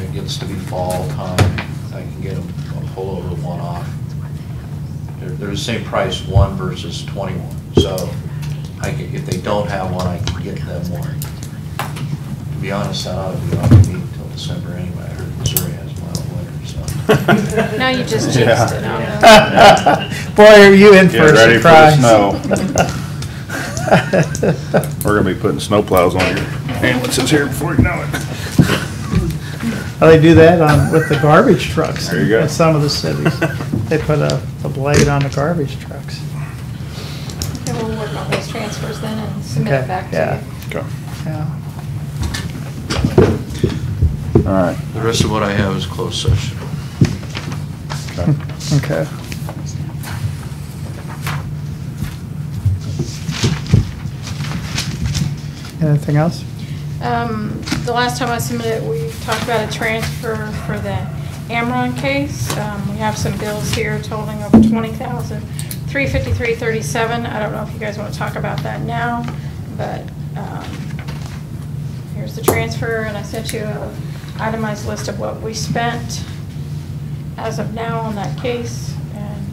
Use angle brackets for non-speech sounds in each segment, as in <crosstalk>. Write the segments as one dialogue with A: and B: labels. A: it gets to be fall time, I can get them a pullover one off. They're, they're the same price, one versus twenty-one, so I can, if they don't have one, I can get them one. To be honest, that ought to be off meeting until December anyway, I heard Missouri has mild winter, so.
B: <laughs> Now you just jinxed
C: Yeah.
B: it,
D: Yeah.
C: <laughs> Boy, are you in for
D: Get
C: a
D: ready for the
C: surprise. <laughs>
D: snow. We're gonna be putting snowplows on your ambulances here before you know
C: <laughs>
D: it.
C: Well, Oh, They do that on, with the garbage trucks.
D: There you go.
C: In some of
D: <laughs>
C: the cities. They put a, a blade on the garbage trucks.
B: Okay, we'll work on those transfers then and submit
C: Okay,
B: it back
C: yeah.
B: to you.
D: Okay.
C: Yeah.
D: All right.
A: The rest of what I have is closed session.
D: Okay.
C: Okay. Anything else?
B: Um, The last time I submitted, we talked about a transfer for the Amron case. Um, We have some bills here totaling over twenty thousand, three fifty-three thirty-seven. I don't know if you guys want to talk about that now, but um, here's the transfer, and I sent you an itemized list of what we spent as of now on that case. And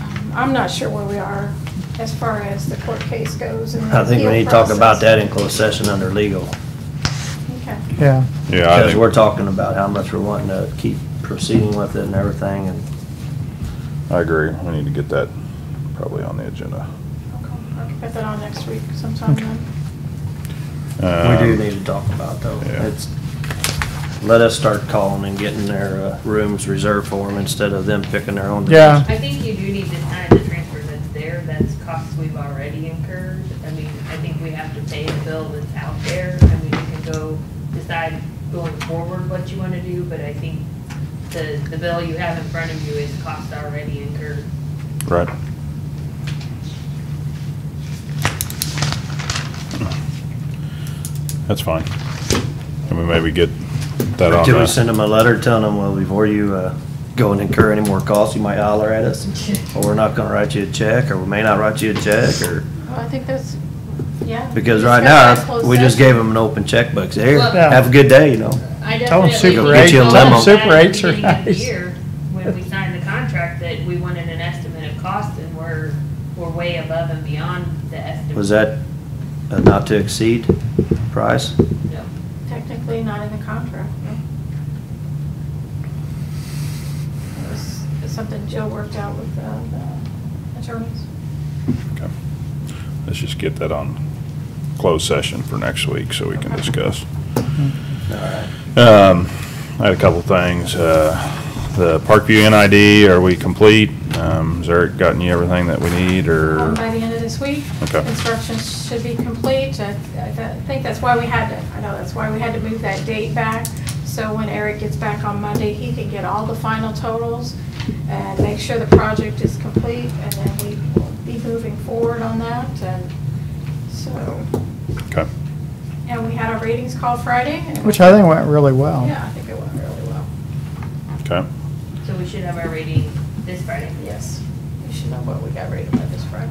B: um, I'm not sure where we are as far as the court case goes and the
E: I think we
B: appeal
E: need to talk about that
B: process.
E: in closed session under legal.
B: Okay.
C: Yeah.
D: Yeah, I
E: Because we're
D: think,
E: talking about how much we're wanting to keep proceeding with it and everything and.
D: I agree. We need to get that probably on the agenda.
B: Okay, I can put that on next week sometime then.
E: We do
D: Um,
E: need to talk about though.
D: yeah.
E: It's, let us start calling and getting their uh, rooms reserved for them instead of them picking their own. rooms.
C: Yeah.
F: I think you do need to sign the transfer that's there, that's costs we've already incurred. I mean, I think we have to pay the bill that's out there. I mean, you can go decide going forward what you want to do, but I think the, the bill you have in front of you is cost already incurred.
D: Right. That's fine. Can we maybe get that on?
E: Until
D: uh,
E: we send them a letter telling them, well, before you uh, go and incur any more costs, you might holler at us. Or we're not gonna write you a check, or we may not write you a check, or,
B: Well, I think that's, yeah.
E: because
B: Discuss
E: right
B: that in
E: now,
B: closed
E: we just
B: session.
E: gave them an open checkbook. Say, here,
F: Well-
E: have a good day, you know?
F: I
C: Tell 'em
F: definitely.
C: Super
E: Get you a
F: told
E: limo.
F: them
C: Super
F: that at the
C: eights are
F: beginning of the
C: nice.
F: year, When we signed the contract, that we wanted an estimate of cost, and we're, we're way above and beyond the estimate.
E: Was that a not to exceed price?
F: No.
B: Technically not in the contract, no. It was something Jill worked out with uh, the attorneys.
D: okay. Let's just get that on closed session for next week so we can discuss. Um, I had a couple things. Uh, The Parkview NID, are we complete? Um, Has Eric gotten you everything that we need or?
B: Um, By the end of this week.
D: Er. Okay.
B: Instructions should be complete. I I th- think that's why we had to, I know that's why we had to move that date back. So when Eric gets back on Monday, he can get all the final totals and make sure the project is complete. And then we will be moving forward on that. And so,
D: Okay.
B: and we had our ratings call Friday. and-
C: Which I think went really well.
B: Yeah, I think it went really well.
D: Okay.
F: So we should have our rating this Friday.
B: Yes. We should know what we got rated by this Friday.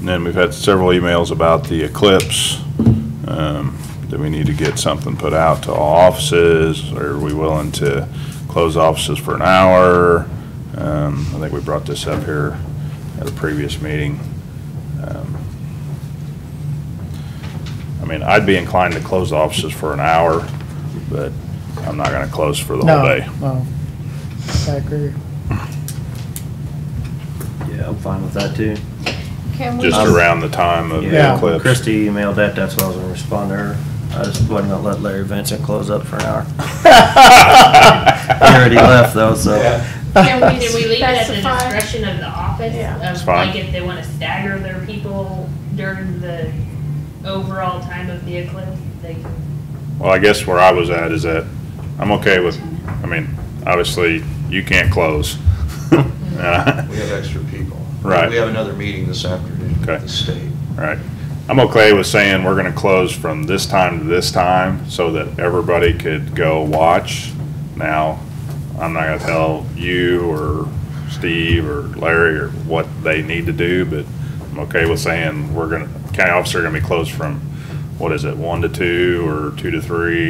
D: And then we've had several emails about the eclipse. Um, Do we need to get something put out to all offices? Are we willing to close offices for an hour? Um, I think we brought this up here at a previous meeting. Um, I mean, I'd be inclined to close offices for an hour, but I'm not gonna close for the whole
C: No,
D: day.
C: No. I agree.
E: Yeah, I'm fine with that too.
B: Can we?
D: Just
E: Um,
D: around the time of the
C: Yeah.
D: eclipse. <laughs>
E: Christie emailed that, that's why I was gonna respond to her. I just wasn't gonna let Larry Vincent close up for an hour. He already left though, so.
D: <laughs>
B: Can
F: Did we leave it at the
B: Specify.
F: discretion of the office?
B: Yeah.
F: of,
D: It's fine.
F: Like if they wanna stagger their people during the overall time of the eclipse, they can.
D: Well, I guess where I was at is that I'm okay with, I mean, obviously, you can't close. <laughs> Uh,
A: We have extra people.
D: Right.
A: We have another meeting this afternoon
D: Okay.
A: with the state.
D: Right. I'm okay with saying we're gonna close from this time to this time so that everybody could go watch. Now, I'm not gonna tell you or Steve or Larry or what they need to do, but I'm okay with saying we're gonna, county officer gonna be closed from, what is it, one to two or two to three